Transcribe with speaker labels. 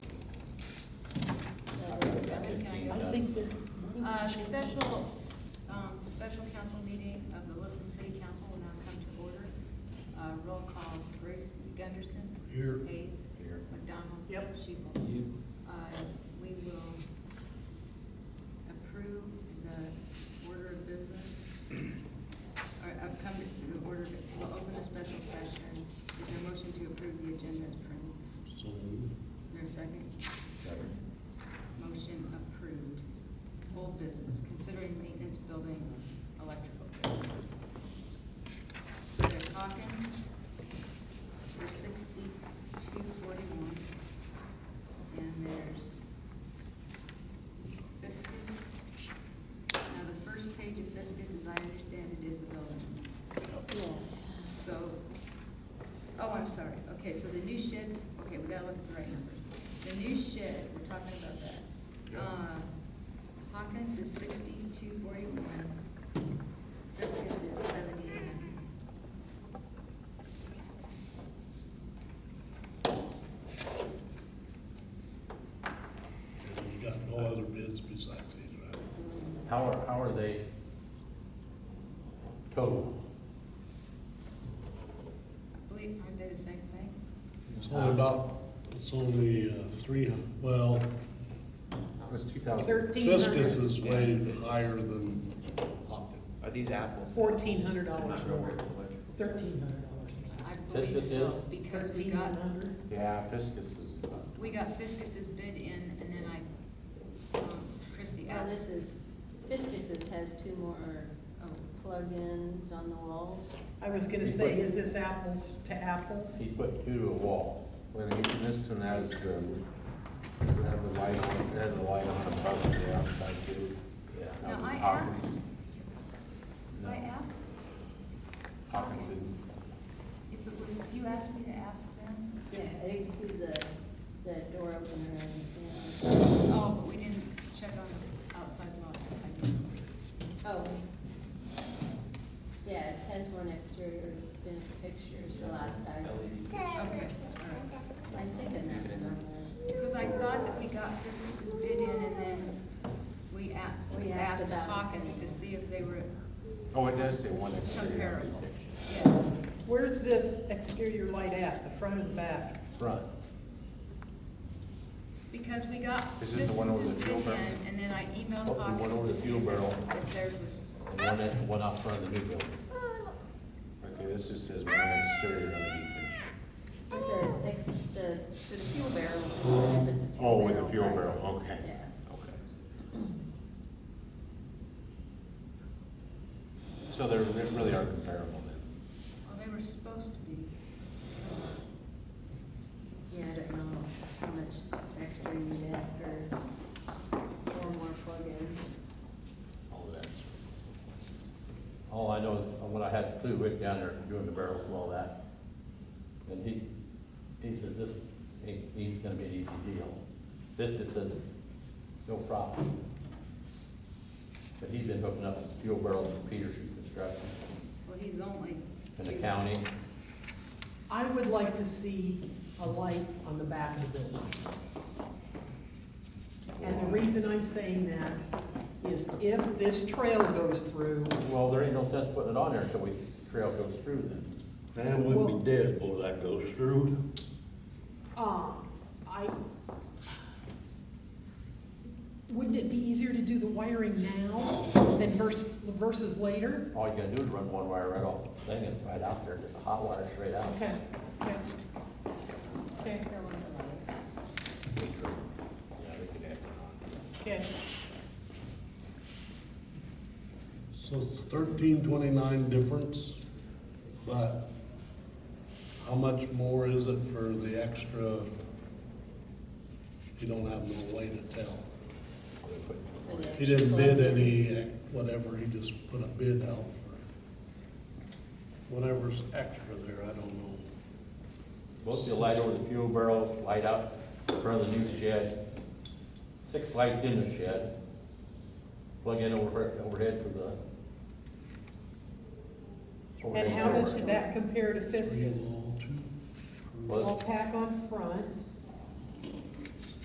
Speaker 1: I
Speaker 2: done.
Speaker 1: think they're.
Speaker 3: Uh, the special, um, special council meeting of the Lisbon City Council will now come to order. Uh, roll call, Bruce Gunderson.
Speaker 2: Here.
Speaker 3: Hayes.
Speaker 2: Here.
Speaker 3: McDonald.
Speaker 1: Yep.
Speaker 3: Shebel.
Speaker 2: You-
Speaker 3: Uh, we will approve the order of business, or upcoming, the order, of- we'll open a special session. Is there a motion to approve the agenda as printed?
Speaker 2: So moved.
Speaker 3: Is there a second?
Speaker 2: Second.
Speaker 3: Motion approved. Whole business, considering maintenance building electrical bills. Senator Hawkins for sixty-two forty-one. And there's Fiskus. Now, the first page of Fiskus, as I understand it, is the building.
Speaker 1: Yes.
Speaker 3: So, oh, I'm sorry, okay, so the new shed, okay, we gotta look at the right numbers. The new shed, we're talking about that. Uh, Hawkins is sixty-two forty-one, Fiskus is seventy-nine.
Speaker 4: And you got no other bids besides these, right?
Speaker 2: How are, how are they total?
Speaker 3: I believe, aren't they the same thing?
Speaker 4: It's only about, it's only uh, three, hun- well,
Speaker 2: That was two thousand.
Speaker 1: Thirteen
Speaker 4: Fiskus
Speaker 1: hundred,
Speaker 4: is way higher than Hopkins.
Speaker 5: Are these apples?
Speaker 1: fourteen hundred
Speaker 5: I'm
Speaker 1: dollars
Speaker 5: not real
Speaker 1: more,
Speaker 5: great with electric.
Speaker 1: thirteen hundred dollars more.
Speaker 3: I believe
Speaker 2: Fiskus
Speaker 3: so,
Speaker 2: is?
Speaker 3: because we got,
Speaker 1: $1,300.
Speaker 2: Yeah, Fiskus is uh, about
Speaker 3: we got Fiskus's bid in, and then I, um, Christie
Speaker 6: Now,
Speaker 3: asked.
Speaker 6: Oh, this is, Fiskus's has two more um,
Speaker 3: Oh,
Speaker 6: plugins on the walls.
Speaker 1: I was gonna say, is this apples to apples?
Speaker 2: He put two to a wall. When he, this one has the, has the light on, it has a light on the top of the outside too. Yeah. that
Speaker 3: Now,
Speaker 2: was
Speaker 3: I
Speaker 2: Hawkins.
Speaker 3: asked,
Speaker 2: No,
Speaker 3: I asked
Speaker 2: Hawkins is,
Speaker 3: if it was, you asked me to ask them?
Speaker 6: Yeah, it includes a, uh, the door opener and, you know.
Speaker 3: Oh, but we didn't check on the outside lot, I guess.
Speaker 6: oh. Yeah, it has one exterior vent fixture, it's the last time.
Speaker 5: LED.
Speaker 3: Okay,
Speaker 6: I was thinking that was on there.
Speaker 3: because I thought that we got Christmas's bid in and then we a- we
Speaker 6: We asked
Speaker 3: asked
Speaker 6: about it.
Speaker 3: Hawkins to see if they were
Speaker 2: oh, it does say one exterior
Speaker 3: comparable.
Speaker 2: depiction.
Speaker 3: Yeah,
Speaker 1: Where's this exterior light at, the front and back?
Speaker 2: Front.
Speaker 3: because we got
Speaker 2: This is the one over the
Speaker 3: Christmas's bid
Speaker 2: fuel
Speaker 3: in
Speaker 2: barrel.
Speaker 3: and then I
Speaker 2: Oh, the
Speaker 3: emailed
Speaker 2: one
Speaker 3: Hawkins to
Speaker 2: over the
Speaker 3: see
Speaker 2: fuel
Speaker 3: if there-
Speaker 2: barrel.
Speaker 3: if there was,
Speaker 2: And one, at- one out front of the new building. Okay, this just says one exterior LED fixture.
Speaker 6: But the, ex- the, the fuel barrel. I put the fuel
Speaker 2: Oh, with the
Speaker 6: barrel
Speaker 2: fuel
Speaker 6: first.
Speaker 2: barrel, okay.
Speaker 6: Yeah.
Speaker 2: Okay. So they're, they really are comparable then.
Speaker 3: well, they were supposed to be.
Speaker 6: Yeah, I don't know how much extra you need for four more plugins.
Speaker 2: All of that's. All I know is, when I had Clue Rick down there doing the barrels and all that, and he, he said, this, ain't he's gonna be an easy deal. This just says, no problem. But he's been hooking up fuel barrels for Peterson Construction
Speaker 3: Well, he's only
Speaker 2: in the
Speaker 3: two.
Speaker 2: county.
Speaker 1: I would like to see a light on the back of the building. And the reason I'm saying that is if this trail goes through,
Speaker 2: Well, there ain't no sense putting it on there until we, trail goes through then.
Speaker 7: Man, we'd be dead before that goes through.
Speaker 1: Um, I, wouldn't it be easier to do the wiring now than versus, versus later?
Speaker 2: All you gotta do is run one wire right off the thing and right out there, just a hot wire straight out.
Speaker 1: Okay, okay. Okay,
Speaker 2: Yeah, they could add it
Speaker 1: okay.
Speaker 4: So it's thirteen twenty-nine difference, but how much more is it for the extra? You don't have no way to tell.
Speaker 2: on. They put-
Speaker 6: for the
Speaker 4: He didn't bid
Speaker 6: plugins.
Speaker 4: any, uh, whatever, he just put a bid out for whatever's extra there, I don't know.
Speaker 2: Both the light over the fuel barrel, light out in front of the new shed, six lights in the shed, plug in over overhead for the.
Speaker 1: And
Speaker 2: overhead
Speaker 1: how does
Speaker 2: door.
Speaker 1: that compare to
Speaker 4: Three
Speaker 1: Fiskus?
Speaker 4: wall, two,
Speaker 2: Well,
Speaker 1: All pack on front,